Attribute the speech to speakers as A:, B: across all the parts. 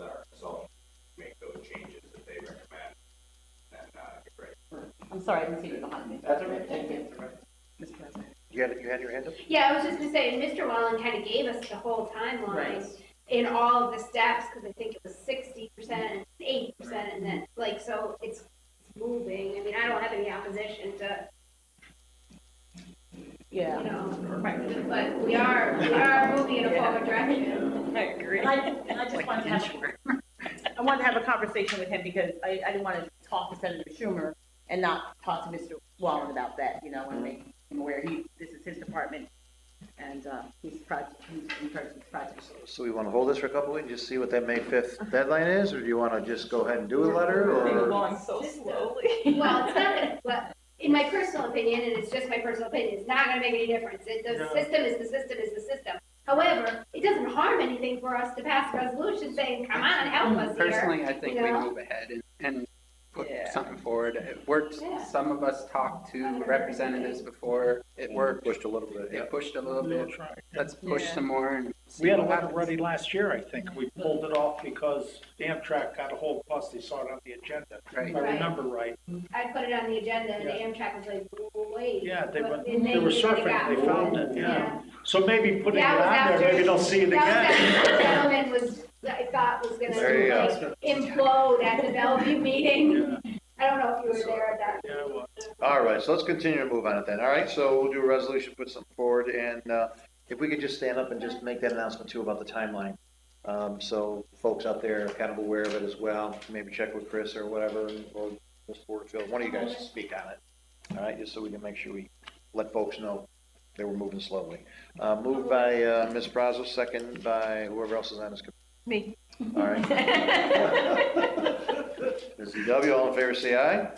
A: uh,
B: sorry, I didn't see you behind me.
C: That's all right,
B: Thank
C: thank
B: you.
C: you.
B: Mr. President.
C: You had, you had your hand up?
D: Yeah, I was just gonna say, and Mr. Wallen kind of gave us the whole timeline in all of the steps, because I think it was sixty percent and eighty percent, and then, like, so it's it's moving. I mean, I don't have any opposition to, you
B: Yeah.
D: know,
B: Right.
D: but we are, we are moving in a forward direction.
E: I agree.
B: And I, and I just wanted to have, I wanted to have a conversation with him because I, I didn't want to talk to Senator Schumer and not talk to Mr. Wallen about that, you know, and make him aware he, this is his department and, uh, he's project, he's in charge of this project.
C: So we want to hold this for a couple of weeks, just see what that May 5th deadline is, or do you want to just go ahead and do a letter,
E: We're
C: or?
E: going so slowly.
D: Well, it's not gonna, but, in my personal opinion, and it's just my personal opinion, it's not gonna make any difference. It- The
F: No.
D: system is the system is the system. However, it doesn't harm anything for us to pass a resolution saying, come on, help us here.
F: Mm, Personally, I think we
D: Yeah.
F: move ahead and, and put
E: Yeah.
F: something forward. It worked,
D: Yeah.
F: some of us talked to representatives before, it worked,
C: Pushed a little bit, yeah.
F: it pushed a little bit. Let's push
E: Yeah.
F: some more and
A: We
F: see
A: had a
F: what
A: letter
F: happens.
A: ready last year, I think. We pulled it off because Amtrak got a whole bus, they saw it on the agenda, if
F: Right,
A: I remember right.
D: I put it on the agenda and the
A: Yeah.
D: Amtrak was like, wait.
A: Yeah, they
D: but-
A: went-
D: and
A: they
D: then
A: were
D: they
A: surfing,
D: got
A: they
D: it.
A: found it, yeah. So maybe putting it
D: That was
A: on there,
D: after-
A: maybe they'll see it again.
D: That was that gentleman was, that I thought was gonna
C: There you go.
D: like implode at the Bellevue meeting. I don't know if you were there at that.
A: Yeah, well,
C: All right, so let's continue to move on it then, all right? So we'll do a resolution, put something forward, and uh, if we could just stand up and just make that announcement too about the timeline. Um, So folks out there are kind of aware of it as well, maybe check with Chris or whatever, or Ms. Porterfield, one of you guys to speak on it. All right, just so we can make sure we let folks know that we're moving slowly. Uh, Moved by uh, Ms. Brazel, second by whoever else is on this. committee.
B: Me.
C: All right. Ms. W, all in favor, say aye.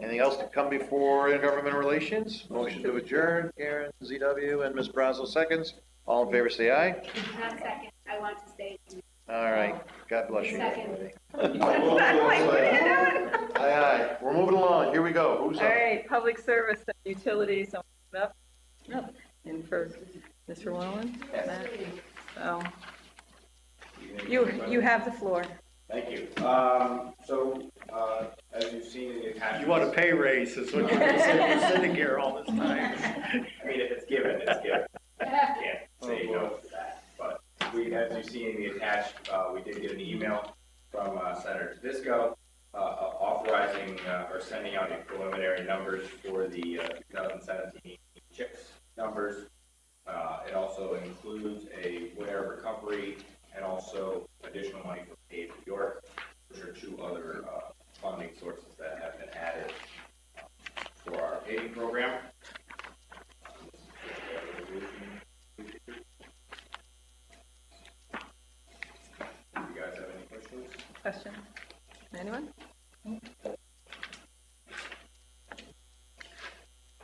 C: Anything else to come before intergovernmental relations? Motion to adjourn, Karen, ZW, and Ms. Brazel seconds. All in favor, say aye.
D: Not second, I want to say,
C: All right, God bless you. everybody.
E: like, what are you doing?
C: Aye, aye, we're moving along, here we go, who's
E: All
C: up?
E: right, public service and utilities, someone up? Nope. And first, Mr. Wallen? Matt? Oh, you, you have the floor.
G: Thank you. Um, so, uh, as you've seen in the attachments.
A: You want a pay raise, is what you're saying, you're sitting here all this time.
G: I mean, if it's given, it's given.
D: yeah,
G: Can't say no to that. But we, as you see in the attached, uh, we did get an email from uh, Senator Disco authorizing, uh, or sending out the preliminary numbers for the uh, 2017 CHIPS numbers. Uh, It also includes a winter recovery and also additional money from State of New York, which are two other uh, funding sources that have been added uh, for our paving program. Um, You guys have any questions?
E: Question? Anyone?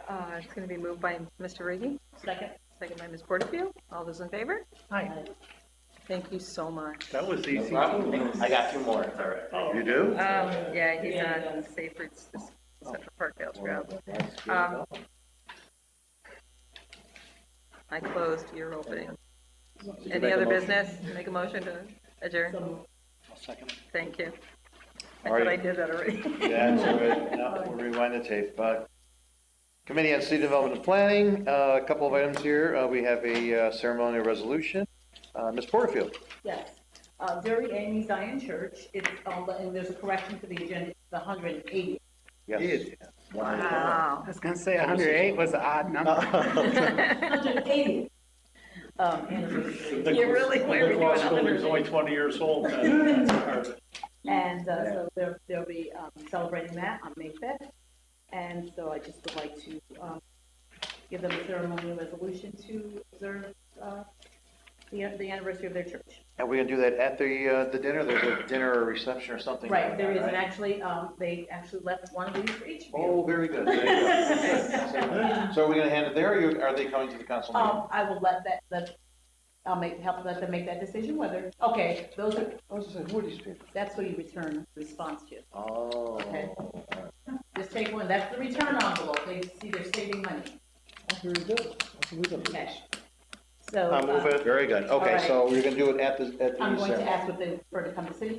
E: Uh, it's gonna be moved by Mr. Riggi,
B: Second.
E: second by Ms. Porterfield. All those in favor? Thank you so much.
A: That was easy.
G: I got two more. All right.
C: You do?
E: Um, yeah, he's
B: Yeah.
E: on Safer, Central Parkdale Trail.
C: Um,
E: I closed, you're opening.
C: you
E: Any
C: make a
E: other
C: motion?
E: business? Make a motion to adjourn. Thank you. I
C: All
E: thought I
C: right.
E: did that already.
C: That's all right, now we'll rewind the tape. Uh, Committee on City Development and Planning, uh, a couple of items here. Uh, We have a uh, ceremonial resolution. Uh, Ms. Porterfield?
B: Yes. Uh, Dirty Amy's Zion Church, it's, um, and there's a correction to the agenda, it's the hundred and eighty.
C: Yes.
E: Wow.
F: I was gonna say hundred eight was an odd number.
B: Hundred and eighty. Um, anniversary.
E: You really, why are we doing
A: Nicholas Building's only 20 years old. then.
B: And uh, so they'll, they'll be um, celebrating that on May 5th. And so I just would like to um, give them a ceremonial resolution to observe uh, the the anniversary of their church.
C: And we're going to do that at the, uh, the dinner? There's a dinner or reception or something?
B: Right,
C: going
B: there
C: on,
B: is, and
C: right?
B: actually, um, they actually left one of these for each of you.
C: Oh, very good. There you go. So are we going to hand it there, or you- are they coming to the council meeting?
B: Um, I will let that, let, I'll make, help let them make that decision whether, okay, those are,
C: Oh, I was just saying, who are these people?
B: that's what you return response to.
C: Oh.
B: Okay.
C: all right.
B: Just take one, that's the return envelope, they see they're saving money,
C: Very good.
B: cash. So.
C: I'll move
B: uh,
C: it. Very good.
B: All
C: Okay,
B: right.
C: so we're going to do it at the, at the
B: I'm going
C: reception.
B: to ask what they, for it to come to city